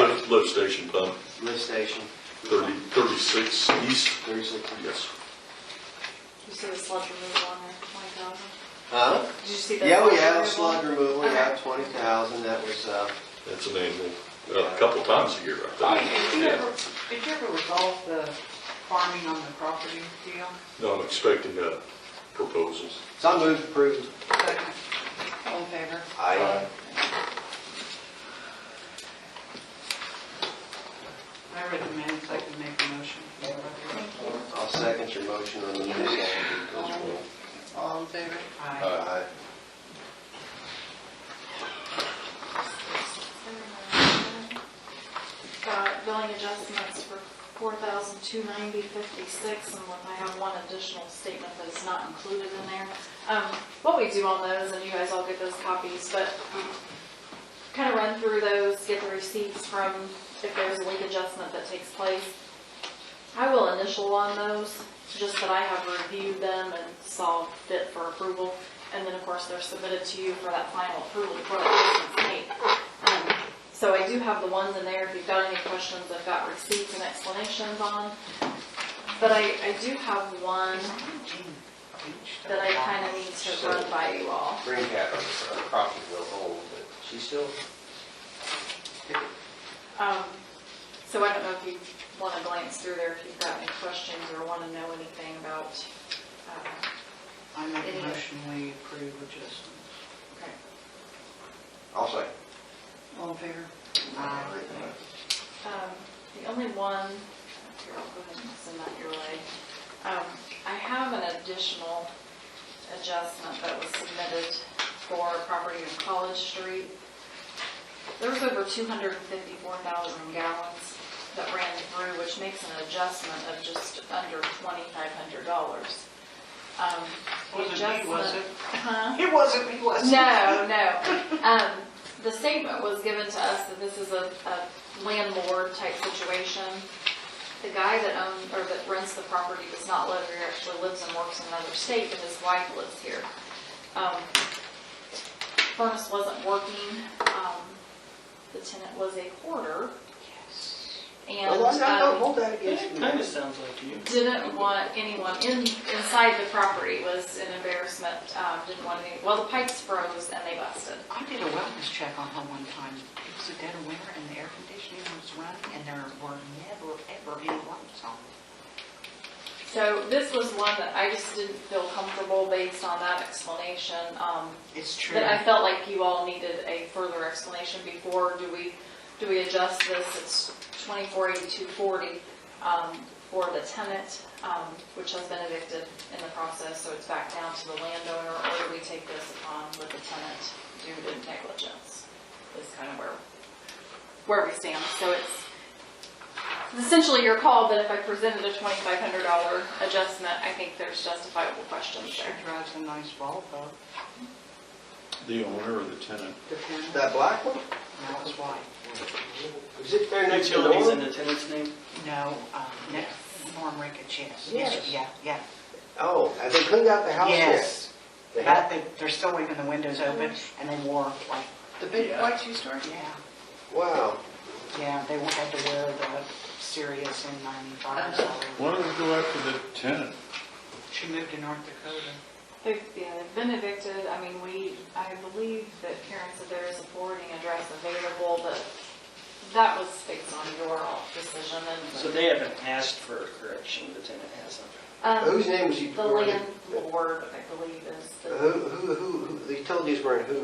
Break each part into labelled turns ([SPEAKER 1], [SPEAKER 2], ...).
[SPEAKER 1] lift station pump,
[SPEAKER 2] lift station.
[SPEAKER 1] 30 36 east,
[SPEAKER 2] Thirty-six.
[SPEAKER 1] yes.
[SPEAKER 3] You see the sludge removal on there, twenty thousand?
[SPEAKER 2] Huh?
[SPEAKER 3] Did you see that?
[SPEAKER 2] Yeah, we
[SPEAKER 3] sludge
[SPEAKER 2] have
[SPEAKER 3] removal?
[SPEAKER 2] slug removal, we
[SPEAKER 3] Okay.
[SPEAKER 2] have twenty thousand, that was, uh,
[SPEAKER 1] That's an annual, uh, a couple times a year, I think.
[SPEAKER 4] Did you ever, did you ever resolve the farming on the property deal?
[SPEAKER 1] No, I'm expecting uh, proposals.
[SPEAKER 2] so I moved approved.
[SPEAKER 4] Second. All in favor?
[SPEAKER 2] I,
[SPEAKER 4] I read the minutes, I can make a motion.
[SPEAKER 2] I'll second your motion on the minutes.
[SPEAKER 4] All in favor? Aye.
[SPEAKER 2] Aye.
[SPEAKER 3] Uh, billing adjustments for four thousand two ninety fifty-six, and I have one additional statement that is not included in there. Um, what we do on those, and you guys all get those copies, but kind of run through those, get the receipts from if there's a link adjustment that takes place. I will initial on those, just that I have reviewed them and saw fit for approval. And then, of course, they're submitted to you for that final approval before the license date. Um, So I do have the ones in there, if you've got any questions, I've got receipts and explanations on. But I, I do have one that I kind of need to run by you all.
[SPEAKER 2] Green cap on the property will hold, but she still,
[SPEAKER 3] Um, So I don't know if you want to glance through there, if you've got any questions or want to know anything about, uh,
[SPEAKER 4] I make
[SPEAKER 3] Any-
[SPEAKER 4] a motion, we approve adjustments.
[SPEAKER 3] okay.
[SPEAKER 2] I'll say.
[SPEAKER 4] All in favor?
[SPEAKER 3] Um, The only one, here, I'll go ahead and send that your way. Um, I have an additional adjustment that was submitted for property on College Street. There was over 254,000 gallons that ran through, which makes an adjustment of just under $2,500. Um, the
[SPEAKER 4] Wasn't me, was
[SPEAKER 3] adjustment-
[SPEAKER 4] it?
[SPEAKER 3] Huh?
[SPEAKER 4] It wasn't me, was
[SPEAKER 3] No, no. Um, the statement was given to us that this is a, a landlord type situation. The guy that owns, or that rents the property does not live here, actually lives and works in another state, but his wife lives here. Um, Furnace wasn't working, um, the tenant was a hoarder. And, um,
[SPEAKER 2] that
[SPEAKER 5] It kind of sounds like you.
[SPEAKER 3] didn't want anyone in, inside the property was an embarrassment, um, didn't want any, well, the pipes froze and they busted.
[SPEAKER 4] I did a wellness check on her one time. It was a dead of winter and the air conditioning was running and there were never, ever any lights on.
[SPEAKER 3] So this was one that I just didn't feel comfortable based on that explanation, um,
[SPEAKER 4] It's true.
[SPEAKER 3] that I felt like you all needed a further explanation before, do we, do we adjust this? It's twenty-four eighty-two forty, um, for the tenant, um, which has been evicted in the process, so it's back down to the landowner, or do we take this upon with the tenant due to negligence? Is kind of where, where we stand, so it's essentially your call, but if I presented a twenty-five hundred dollar adjustment, I think there's justifiable questions
[SPEAKER 4] She
[SPEAKER 3] there.
[SPEAKER 4] drives a nice Volvo.
[SPEAKER 6] The owner or the tenant?
[SPEAKER 4] Depends.
[SPEAKER 2] That black one?
[SPEAKER 4] That was white.
[SPEAKER 2] Is it there next to the
[SPEAKER 5] Utilities in
[SPEAKER 2] door?
[SPEAKER 5] the tenant's name?
[SPEAKER 4] No, um, next, Norm Ricketts, yes.
[SPEAKER 2] Yes.
[SPEAKER 4] Yeah, yeah.
[SPEAKER 2] Oh, have they cleaned out the house yet?
[SPEAKER 4] Yes.
[SPEAKER 2] They
[SPEAKER 4] But
[SPEAKER 2] have?
[SPEAKER 4] they, they're still leaving the windows open and they wore like,
[SPEAKER 5] The big white shoe store?
[SPEAKER 4] yeah,
[SPEAKER 2] Wow.
[SPEAKER 4] yeah, they had to wear the Sirius in ninety-five.
[SPEAKER 6] Why don't we go after the tenant?
[SPEAKER 4] She moved to North Dakota.
[SPEAKER 3] They've, yeah, they've been evicted, I mean, we, I believe that Karen said there is a forwarding address available, but that was based on your decision
[SPEAKER 5] So
[SPEAKER 3] and,
[SPEAKER 5] they haven't asked for a correction, the tenant hasn't.
[SPEAKER 2] Whose
[SPEAKER 3] um,
[SPEAKER 2] name was he?
[SPEAKER 3] the landlord, I believe, is
[SPEAKER 2] Who,
[SPEAKER 3] the
[SPEAKER 2] who, who, who- the utilities were in who's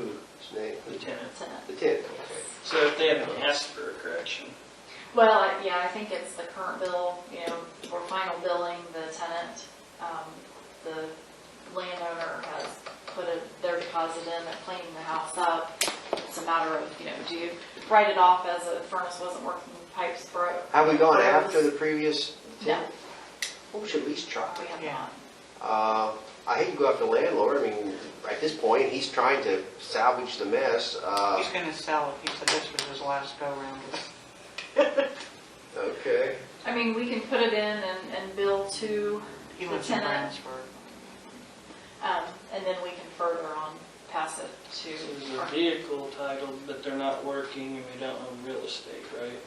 [SPEAKER 2] name?
[SPEAKER 5] The tenant.
[SPEAKER 3] tenant.
[SPEAKER 2] The tenant.
[SPEAKER 5] So if they haven't asked for a correction,
[SPEAKER 3] Well, I- yeah, I think it's the current bill, you know, for final billing, the tenant, um, the landowner has put a- their deposit in, they're cleaning the house up. It's a matter of, you know, do you write it off as a furnace wasn't working, pipes broke?
[SPEAKER 2] Have we gone after the previous
[SPEAKER 3] No,
[SPEAKER 2] tenant? Well, we should at least try.
[SPEAKER 3] we have
[SPEAKER 4] Yeah.
[SPEAKER 3] not.
[SPEAKER 2] Uh, I hate to go after the landlord. I mean, at this point, he's trying to salvage the mess. Uh,
[SPEAKER 4] He's gonna sell it. He said this was his last go-round.
[SPEAKER 2] okay.
[SPEAKER 3] I mean, we can put it in and, and bill to,
[SPEAKER 4] He
[SPEAKER 3] The
[SPEAKER 4] lives in
[SPEAKER 3] tenant.
[SPEAKER 4] Brownsburg.
[SPEAKER 3] um, and then we can further on pass it
[SPEAKER 5] so
[SPEAKER 3] to.
[SPEAKER 5] there's a vehicle titled, but they're not working and we don't own real estate, right?